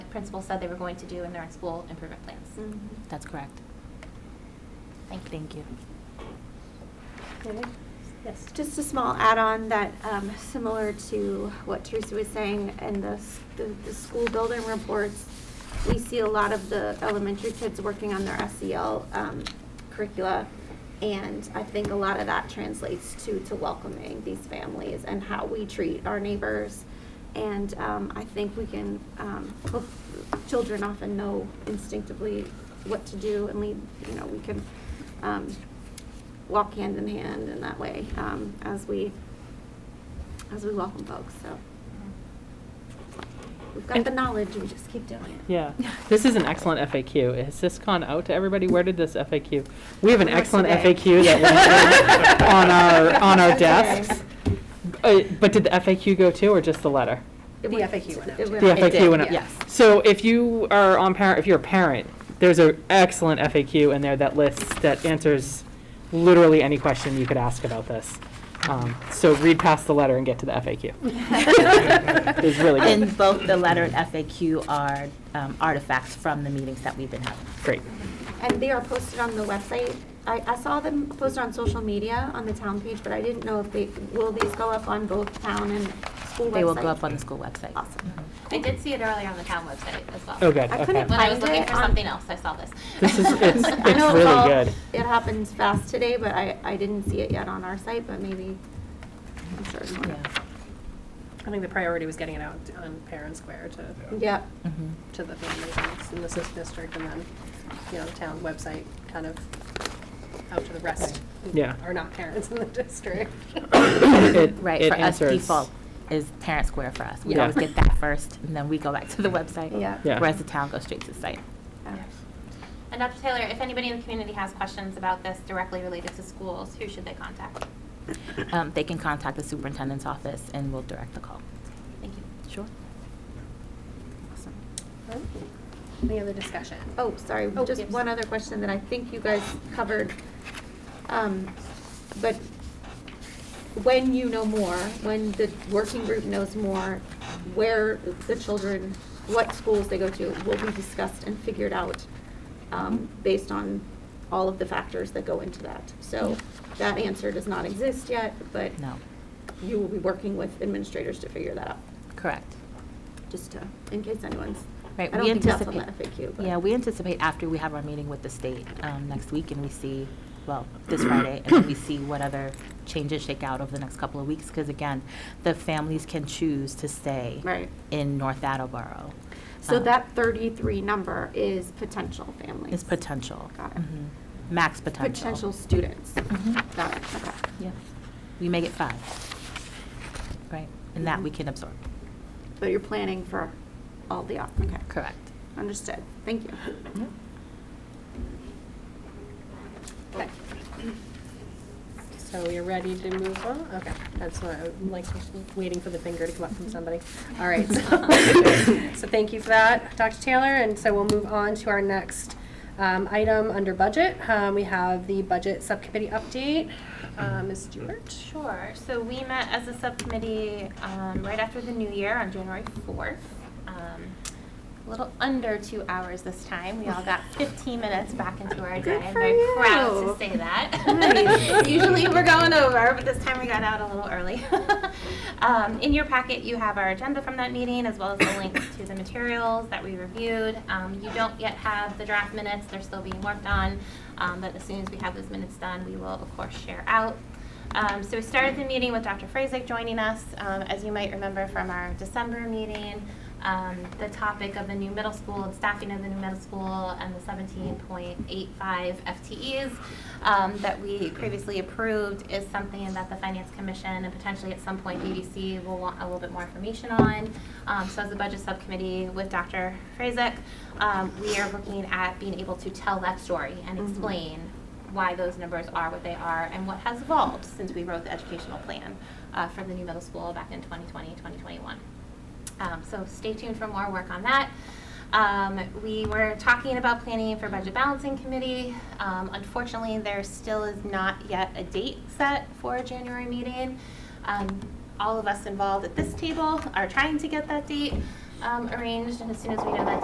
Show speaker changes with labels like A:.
A: principal said they were going to do in their school improvement plans.
B: That's correct.
A: Mm. Thank you.
B: Thank you.
C: David? Yes.
D: Just a small add-on that, um, similar to what Teresa was saying, in the, s- the, the school building reports, we see a lot of the elementary kids working on their SEL, um, curricula. And I think a lot of that translates to, to welcoming these families and how we treat our neighbors. And, um, I think we can, um, hope- children often know instinctively what to do and lead, you know, we can, um, walk hand in hand in that way um, as we as we welcome folks. So we've got
E: And-
D: the knowledge. We just keep doing it.
E: Yeah, this is an excellent FAQ. Has this gone out to everybody? Where did this FAQ? We have an
D: Where was
E: excellent
D: today?
E: FAQ that went on our, on our desks. Uh, But did the FAQ go too, or just the letter?
D: The FAQ went out. It
E: The
D: went out.
E: FAQ went up.
B: yes.
E: So if you are on parent, if you're a parent, there's an excellent FAQ in there that lists, that answers literally any question you could ask about this. Um, So read past the letter and get to the FAQ. It's really good.
B: And both the letter and FAQ are um, artifacts from the meetings that we've been having.
E: Great.
D: And they are posted on the website. I, I saw them posted on social media on the town page, but I didn't know if they will these go up on both town and school website.
B: They will go up on the school website.
D: Awesome.
A: I did see it earlier on the town website as well.
E: Oh, good,
D: I
E: okay.
D: couldn't
A: When I was
D: Find
A: looking
D: it
A: for
D: on-
A: something else, I saw this.
E: This is- it's-
D: I
E: it's
D: know
E: really
D: all-
E: good.
D: It happened fast today, but I, I didn't see it yet on our site, but maybe I'm sure. it's more.
B: Yeah.
F: I think the priority was getting it out on Parent Square to,
D: Yep.
B: Mhm.
F: to the families in the SIS district and then, you know, the town website kind of out to the rest. who
E: Yeah.
F: Are not parents in the district.
E: It-
B: Right,
E: it
B: for us,
E: answers-
B: default is Parent Square for us. We
E: Yeah.
B: always get that first, and then we go back to the website.
D: Yeah.
E: Yeah.
B: Whereas the town goes straight to the site.
D: Yeah.
A: And Dr. Taylor, if anybody in the community has questions about this directly related to schools, who should they contact?
B: Um, They can contact the superintendent's office, and we'll direct the call.
A: Thank you.
B: Sure.
D: Awesome.
F: Any other discussion?
D: Oh, sorry,
F: Oh,
D: just
F: yes.
D: one other question that I think you guys covered. Um, But when you know more, when the working group knows more, where the children, what schools they go to, will be discussed and figured out um, based on all of the factors that go into that. So that answer does not exist yet, but
B: No,
D: you will be working with administrators to figure that out,
B: correct.
D: just to, in case anyone's, I
B: Right,
D: don't
B: we
D: think that's on the
B: anticipate.
D: FAQ. but-
B: Yeah, we anticipate after we have our meeting with the state um, next week and we see, well, this Friday, and then we see what other changes shake out over the next couple of weeks. Because again, the families can choose to stay
D: Right.
B: in North Attleboro.
D: So
B: Um,
D: that 33 number is potential families?
B: Is potential.
D: Got it.
B: Mhm. Max potential.
D: Potential students?
B: Mhm.
D: Got it, okay.
B: Yeah. We make it five. Right,
D: Mm-hmm.
B: and that we can absorb.
D: But you're planning for all the, op- okay,
B: Correct.
D: understood, thank you.
F: Okay. So you're ready to move on? Okay, that's what, I'm like, waiting for the finger to come up from somebody. All right, so, so thank you for that, Dr. Taylor, and so we'll move on to our next um, item under budget. Um, We have the budget subcommittee update. Um, Ms. Stewart?
A: Sure. So we met as a subcommittee um, right after the new year on January 4th. Um, A little under two hours this time. We all got 15 minutes back into our day.
D: Good
A: I'm
D: for
A: very proud to
D: you.
A: say that.
D: Nice.
A: Usually we're going over, but this time we got out a little early. Um, In your packet, you have our agenda from that meeting as well as the links to the materials that we reviewed. Um, You don't yet have the draft minutes. They're still being worked on. Um, But as soon as we have those minutes done, we will of course share out. Um, so we started the meeting with Dr. Frazek joining us. Um, as you might remember from our December meeting, um, the topic of the new middle school and staffing of the new middle school and the 17.85 FTEs um, that we previously approved is something that the Finance Commission and potentially at some point EDC will want a little bit more information on. Um, so as the budget subcommittee with Dr. Frazek, um, we are looking at being able to tell that story and
D: Mhm.
A: explain why those numbers are what they are and what has evolved since we wrote the educational plan uh, for the new middle school back in 2020, 2021. Um, so stay tuned for more work on that. Um, we were talking about planning for budget balancing committee. Um, unfortunately, there still is not yet a date set for a January meeting. Um, all of us involved at this table are trying to get that date um, arranged, and as soon as we know that